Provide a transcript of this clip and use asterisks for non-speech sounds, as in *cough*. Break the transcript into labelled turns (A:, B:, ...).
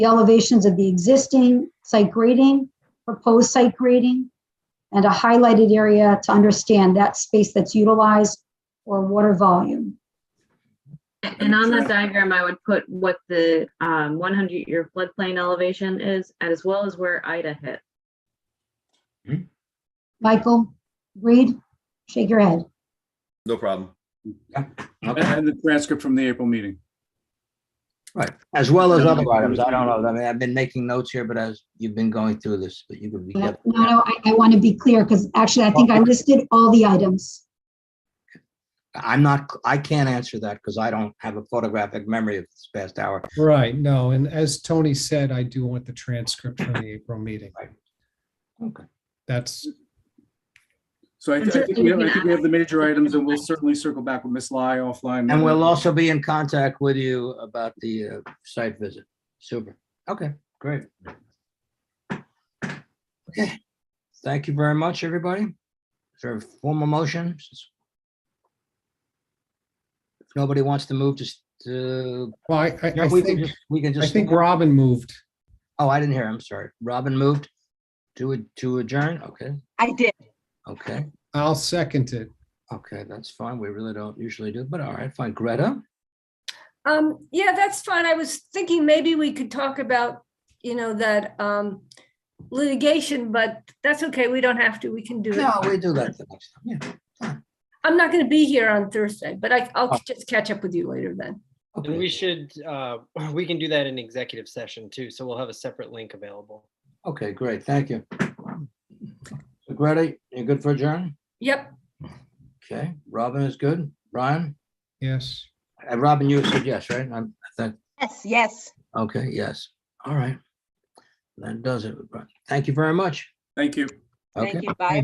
A: the elevations of the existing site grading, proposed site grading, and a highlighted area to understand that space that's utilized or water volume.
B: And on the diagram, I would put what the um, 100-year floodplain elevation is, as well as where Ida hit.
A: Michael, Reed, shake your head.
C: No problem.
D: Okay,
E: And the transcript from the April meeting.
D: right.
E: As
D: Well, as other items, I don't know. I mean, I've been making notes here, but as you've been going through this, but you could be.
A: No, no, I, I want to be clear because actually I think I listed all the items.
D: I'm not, I can't answer that because I don't have a photographic memory of this past hour.
F: Right, no, and as Tony said, I do want the transcript from the April meeting.
D: Right. Okay.
F: That's,
E: So I I think we have, I think we have the major items and we'll certainly circle back with Ms. Lai offline.
F: Mm-hmm.
D: And we'll also be in contact with you about the uh, site visit. Super. Okay, great. Okay, thank you very much, everybody. Is there a formal motion? If nobody wants to move, just, uh,
F: well, I, I I
D: we can
F: think,
D: just, we can
F: I
D: just.
F: think Robin moved.
D: Oh, I didn't hear. I'm sorry. Robin moved to, ad- to adjourn. Okay,
G: I did.
D: okay,
F: I'll second it.
D: okay. That's fine. We really don't usually do, but all right, fine. Greta?
H: Um, yeah, that's fine. I was thinking maybe we could talk about, you know, that um litigation, but that's okay. We don't have to. We can do it.
D: No, we do that the next time. Yeah.
H: I'm not going to be here on Thursday, but I, I'll just catch up with you later then.
I: And we
D: Okay,
I: should, uh, *clears throat* we can do that in executive session too, so we'll have a separate link available.
D: okay, great. Thank you. So Greta, you're good for adjourn?
H: Yep,
D: Okay, Robin is good. Brian?
F: Yes,
D: Uh, Robin, you said yes, right? I'm, I think,
G: Yes, yes.
D: okay, yes. All right. That does it. Brian. Thank you very much.
E: Thank you.
D: Okay.
G: Thank you. Bye.